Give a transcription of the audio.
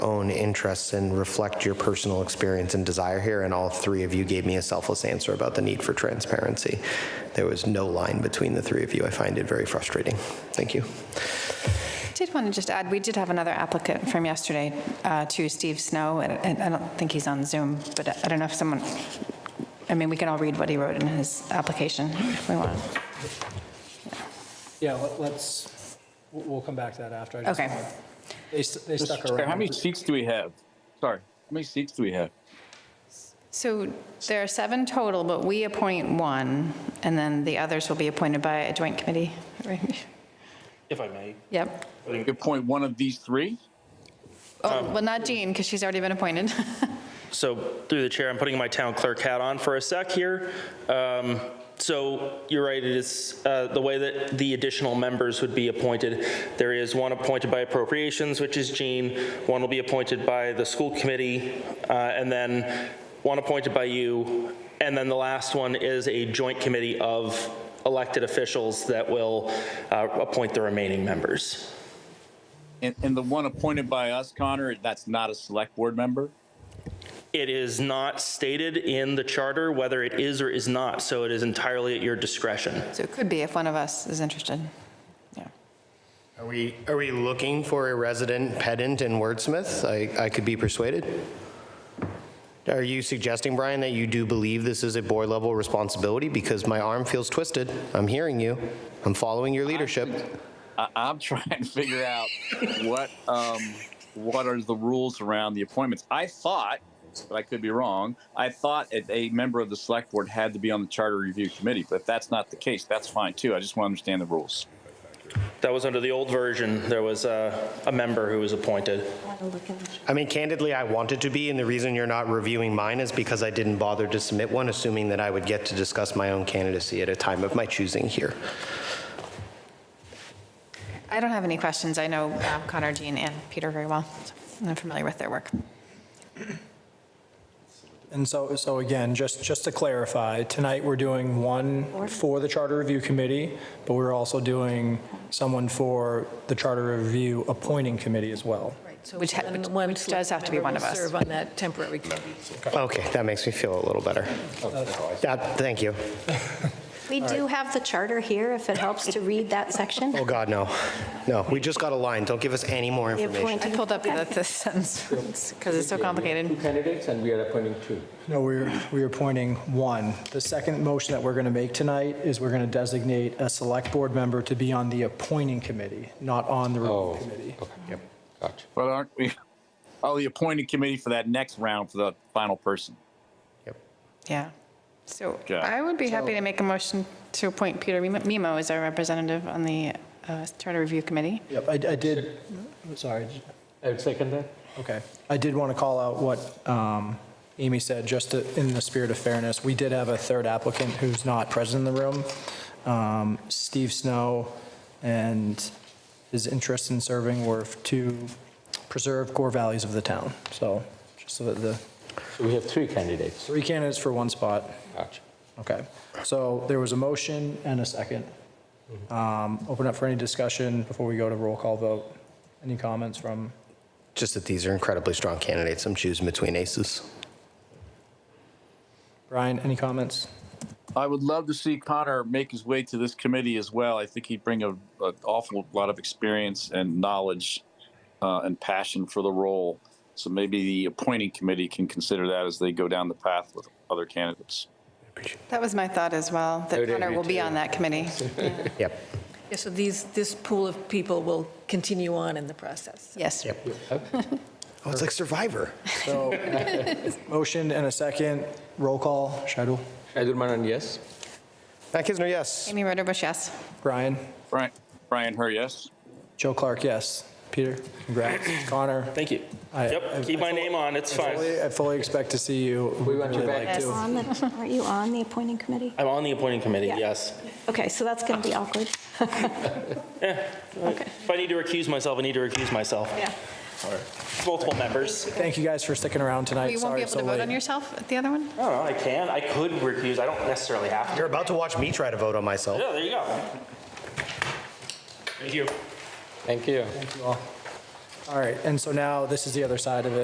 own interests and reflect your personal experience and desire here. And all three of you gave me a selfless answer about the need for transparency. There was no line between the three of you. I find it very frustrating. Thank you. Did want to just add, we did have another applicant from yesterday uh, to Steve Snow, and and I don't think he's on Zoom, but I don't know if someone, I mean, we can all read what he wrote in his application if we want. Yeah, let- let's, we'll- we'll come back to that after. I just- Okay. They st- they stuck Sorry, around. How many seats do we have? Sorry, how many seats do we have? So there are seven total, but we appoint one, and then the others will be appointed by a joint committee. right? If I may. Yep. You could point one of these three? Oh, well, not Jean, because she's already been appointed. So through the chair, I'm putting my town clerk hat on for a sec here. Um, So you're right, it is uh, the way that the additional members would be appointed. There is one appointed by appropriations, which is Jean, one will be appointed by the school committee, uh, and then one appointed by you, and then the last one is a joint committee of elected officials that will uh, appoint the remaining members. And, and the one appointed by us, Connor, that's not a select board member? It is not stated in the charter whether it is or is not, so it is entirely at your discretion. So it could be if one of us is interested. Yeah. Are we, are we looking for a resident pedant and wordsmith? I, I could be persuaded. Are you suggesting, Brian, that you do believe this is a board level responsibility? Because my arm feels twisted. I'm hearing you. I'm following your leadership. I, I'm trying to figure out what, um, what are the rules around the appointments? I thought, but I could be wrong, I thought that a member of the select board had to be on the charter review committee, but if that's not the case, that's fine too. I just want to understand the rules. That was under the old version, there was a, a member who was appointed. I mean, candidly, I wanted to be, and the reason you're not reviewing mine is because I didn't bother to submit one, assuming that I would get to discuss my own candidacy at a time of my choosing here. I don't have any questions. I know um, Connor, Jean, and Peter very well. so I'm familiar with their work. And so, so again, just, just to clarify, tonight we're doing one for the Charter Review Committee, but we're also doing someone for the Charter Review Appointing Committee as well. So Which ha- one- which- one which does select have to be member one will of us. Serve on that temporary committee. Okay, that makes me feel a little better. That- Thank you. We do have the charter here, if it helps to read that section. Oh, God, no. No, we just got a line. Don't give us any more The information. I appointed- pulled up the the sentence because it's so Two complicated. candidates, and we are appointing two. No, we're, we're appointing one. The second motion that we're going to make tonight is we're going to designate a Select Board member to be on the Appointing Committee, not on the Oh. Review Committee. Oh, Okay, yep, gotcha. But aren't we, oh, the appointing committee for that next round for the final person. Yeah. So Yeah. I would be happy to make a motion to appoint Peter Mimo as our representative on the uh, Charter Review Committee. Yep, I, I did, sorry, I would second that. Okay. I did want to call out what um, Amy said, just to- in the spirit of fairness. We did have a third applicant who's not present in the room, um, Steve Snow, and his interest in serving were to preserve core values of the town. So just so that the, So we have three candidates. three candidates for one spot. Gotcha. Okay. So there was a motion and a second. Um, Open up for any discussion before we go to roll call vote. Any comments from? Just that these are incredibly strong candidates. I'm choosing between aces. Brian, any comments? I would love to see Connor make his way to this committee as well. I think he'd bring a, an awful lot of experience and knowledge uh, and passion for the role. So maybe the appointing committee can consider that as they go down the path with other candidates. That was my thought as well, that would Connor agree will be too. on that committee. Yep, Yeah, so these, this pool of people will continue on in the process. Yes. yep. Oh, it's like Survivor. So, motion and a second, roll call, Shadul, Shaidur Manan, yes? Matt Kisner, yes. Amy Roderbush, yes. Brian, Brian, Brian, her yes. Joe Clark, yes. Peter, congrats. Connor, Thank you. I- I- Yep, keep my name on, it's fine. fully- I fully expect to see you. We want you Really back. like to. On the- Aren't you on the appointing committee? I'm on the appointing committee, Yeah. yes. Okay, so that's going to be awkward. If I need to recuse myself, I need to recuse myself. Yeah. Multiple members. Thank you guys for sticking around tonight. You won't be Sorry able it's so to vote on late. yourself at the other one? I don't know, I can, I could recuse, I don't necessarily have to. You're about to watch me try to vote on myself. Yeah, there you go. Thank you. Thank you. All right, and so now this is the other side of it.